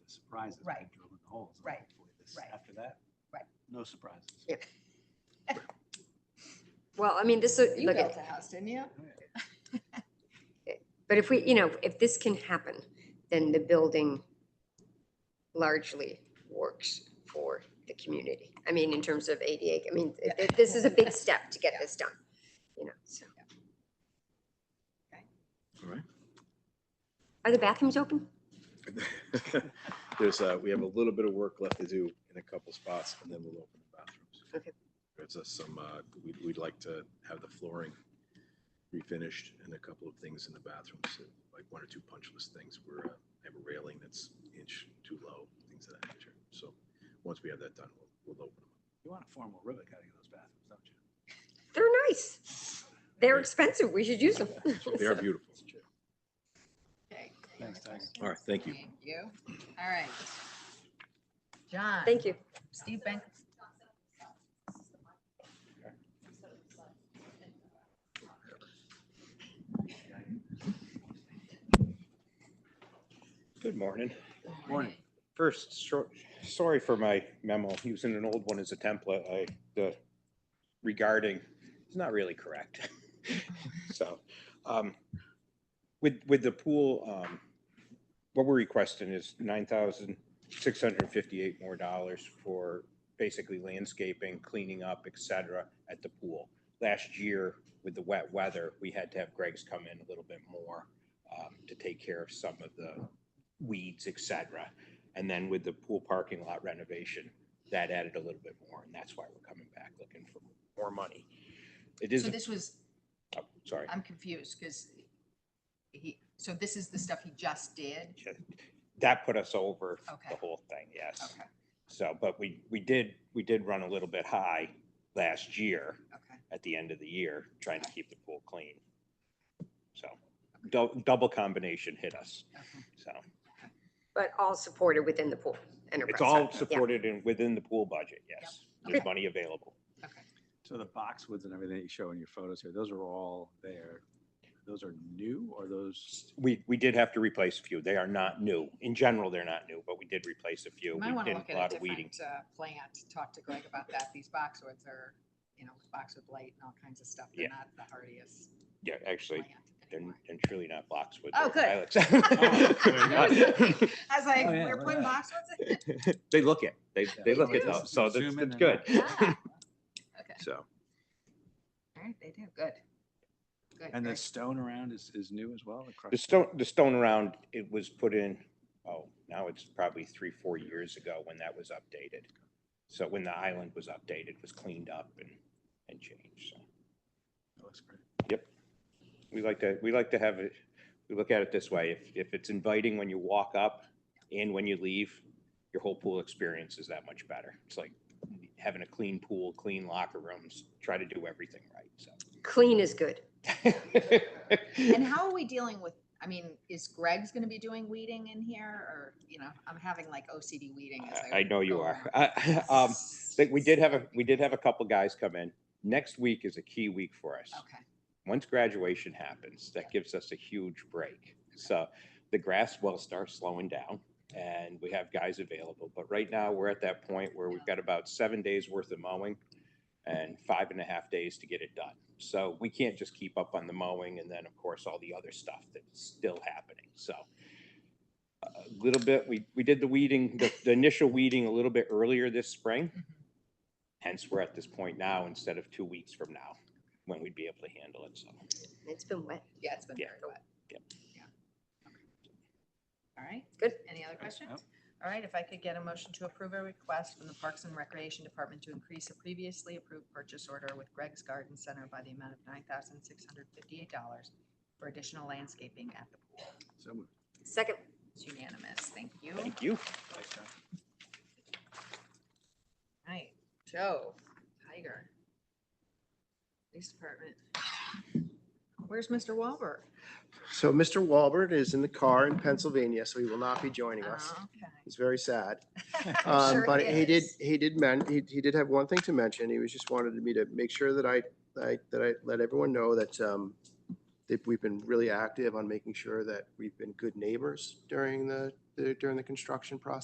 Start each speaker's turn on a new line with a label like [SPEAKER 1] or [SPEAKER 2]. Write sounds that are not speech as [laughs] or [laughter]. [SPEAKER 1] surprises. by
[SPEAKER 2] Right.
[SPEAKER 1] Drilling the holes. and
[SPEAKER 2] Right.
[SPEAKER 1] hopefully this-
[SPEAKER 2] Right.
[SPEAKER 1] After that.
[SPEAKER 2] Right.
[SPEAKER 1] No surprises.
[SPEAKER 2] Yeah.
[SPEAKER 3] Well, I mean, this, is-
[SPEAKER 2] You
[SPEAKER 3] look,
[SPEAKER 2] built
[SPEAKER 3] at-
[SPEAKER 2] a house, didn't you?
[SPEAKER 3] but if we, you know, if this can happen, then the building largely works for the community. I mean, in terms of ADA, I mean, th-
[SPEAKER 2] Yeah.
[SPEAKER 3] th- this is a big step to get this done, you know, so.
[SPEAKER 4] All right.
[SPEAKER 3] Are the bathrooms open?
[SPEAKER 4] [laughs] There's, uh, we have a little bit of work left to do in a couple spots and then we'll open the bathrooms.
[SPEAKER 3] Okay.
[SPEAKER 4] There's uh, some, uh, we'd, we'd like to have the flooring refinished and a couple of things in the bathrooms, so like one or two punch list things where uh, I have a railing that's inch too low, things of that nature. So once we have that done, we'll, we'll open them.
[SPEAKER 1] You want a formal ribbon cutting in those bathrooms, don't you?
[SPEAKER 3] They're nice. They're expensive. We should use them.
[SPEAKER 4] They are beautiful.
[SPEAKER 2] Okay.
[SPEAKER 1] Thanks, Tiger.
[SPEAKER 4] All right, thank you.
[SPEAKER 2] Thank you. All right. John.
[SPEAKER 3] [laughs] Thank you.
[SPEAKER 2] Steve Bank.
[SPEAKER 5] Good morning.
[SPEAKER 1] Morning.
[SPEAKER 5] First, short, sorry for my memo, using an old one as a template, I, the regarding, it's not really correct. [laughs] So, um, with, with the pool, um, what we're requesting is nine thousand six hundred and fifty-eight more dollars for basically landscaping, cleaning up, et cetera, at the pool. Last year, with the wet weather, we had to have Greg's come in a little bit more, um, to take care of some of the weeds, et cetera. And then with the pool parking lot renovation, that added a little bit more, and that's why we're coming back looking for more money. It
[SPEAKER 2] So
[SPEAKER 5] isn't,
[SPEAKER 2] this was,
[SPEAKER 5] oh, sorry.
[SPEAKER 2] I'm confused because he, so this is the stuff he just did?
[SPEAKER 5] Yeah, That put us over
[SPEAKER 2] Okay.
[SPEAKER 5] the whole thing, yes.
[SPEAKER 2] Okay,
[SPEAKER 5] So, but we, we did, we did run a little bit high last year
[SPEAKER 2] okay.
[SPEAKER 5] at the end of the year, trying to keep the pool clean. So dou- double combination hit us.
[SPEAKER 2] okay.
[SPEAKER 5] So
[SPEAKER 3] But all supported within the pool enterprise.
[SPEAKER 5] it's
[SPEAKER 3] fund.
[SPEAKER 5] all
[SPEAKER 3] Yeah.
[SPEAKER 5] supported and within the pool budget, yes. There's
[SPEAKER 3] Okay.
[SPEAKER 5] money available.
[SPEAKER 1] So the boxwoods and everything that you show in your photos here, those are all there. Those are new or those?
[SPEAKER 5] We, we did have to replace a few. They are not new. In general, they're not new, but we did replace a few.
[SPEAKER 2] You
[SPEAKER 5] We
[SPEAKER 2] might
[SPEAKER 5] did
[SPEAKER 2] want to look
[SPEAKER 5] a
[SPEAKER 2] at
[SPEAKER 5] lot
[SPEAKER 2] a
[SPEAKER 5] of weeding.
[SPEAKER 2] different uh, plant, talk to Greg about that. These boxwoods are, you know, boxwood blight and all kinds of stuff. They're
[SPEAKER 5] Yeah.
[SPEAKER 2] not the hardiest
[SPEAKER 5] Yeah, actually,
[SPEAKER 2] plant
[SPEAKER 5] they're,
[SPEAKER 2] anymore.
[SPEAKER 5] they're truly not boxwood.
[SPEAKER 2] Oh,
[SPEAKER 5] they're [laughs]
[SPEAKER 2] [laughs] good.
[SPEAKER 5] ilex.
[SPEAKER 2] I was like,
[SPEAKER 1] Oh, yeah,
[SPEAKER 2] we're
[SPEAKER 1] look
[SPEAKER 2] putting
[SPEAKER 1] at
[SPEAKER 2] boxwoods in?
[SPEAKER 5] They look it. They, they look it
[SPEAKER 2] do.
[SPEAKER 5] though. So that's,
[SPEAKER 1] Zoom in
[SPEAKER 5] that's
[SPEAKER 1] and
[SPEAKER 5] good.
[SPEAKER 1] out.
[SPEAKER 2] Ah, Okay,
[SPEAKER 5] So
[SPEAKER 2] all right, they do, good. Good.
[SPEAKER 1] And the
[SPEAKER 2] very
[SPEAKER 1] stone around is, is new as well? crushed
[SPEAKER 5] the stone, the stone around, it was put in, oh, now it's probably three, four years ago when that was updated. So when the island was updated, was cleaned up and, and changed. So
[SPEAKER 1] That looks great.
[SPEAKER 5] we like to, we like to have it, we look at it this way. If, if it's inviting when you walk up and when you leave, your whole pool experience is that much better. It's like having a clean pool, clean locker rooms, try to do everything right, so.
[SPEAKER 3] Clean is good.
[SPEAKER 2] And how are we dealing with, I mean, is Greg's gonna be doing weeding in here or, you know, I'm having like OCD weeding as
[SPEAKER 5] I-
[SPEAKER 2] I.
[SPEAKER 5] I know you
[SPEAKER 2] go
[SPEAKER 5] are.
[SPEAKER 2] along.
[SPEAKER 5] I- [laughs] um, but We did have a, we did have a couple guys come in. Next week is a key week for us.
[SPEAKER 2] Okay,
[SPEAKER 5] Once graduation happens, that gives us a huge break. So the grass will start slowing down and we have guys available. But right now, we're at that point where we've got about seven days worth of mowing and five and a half days to get it done. So we can't just keep up on the mowing and then, of course, all the other stuff that's still happening. So a little bit, we, we did the weeding, the, the initial weeding a little bit earlier this spring.
[SPEAKER 2] Mhm.
[SPEAKER 5] Hence, we're at this point now instead of two weeks from now when we'd be able to handle it. So
[SPEAKER 3] It's been wet.
[SPEAKER 2] yeah, it's been
[SPEAKER 5] Yeah.
[SPEAKER 2] very wet.
[SPEAKER 5] Yep.
[SPEAKER 2] Yeah. Okay. All right.
[SPEAKER 3] Good.
[SPEAKER 2] Any other
[SPEAKER 1] Nope.
[SPEAKER 2] questions? All right, if I could get a motion to approve a request from the Parks and Recreation Department to increase a previously approved purchase order with Greg's Garden Center by the amount of nine thousand six hundred fifty-eight dollars for additional landscaping at the pool.
[SPEAKER 1] So moved.
[SPEAKER 3] Second,
[SPEAKER 2] It's unanimous, thank you.
[SPEAKER 5] thank you.
[SPEAKER 1] Thanks, John.
[SPEAKER 2] Right, Joe, Tiger. Police Department. Where's Mr. Wahlberg?
[SPEAKER 6] So Mr. Walbert is in the car in Pennsylvania, so he will not be joining us.
[SPEAKER 2] Oh, okay.
[SPEAKER 6] He's very sad.
[SPEAKER 2] [laughs] I'm
[SPEAKER 6] Um,
[SPEAKER 2] sure
[SPEAKER 6] But he did,
[SPEAKER 2] is.
[SPEAKER 6] he did men, he, he did have one thing to mention. He was just wanted me to make sure that I, I, that I let everyone know that, um, that we've been really active on making sure that we've been good neighbors during the, the- during the construction process.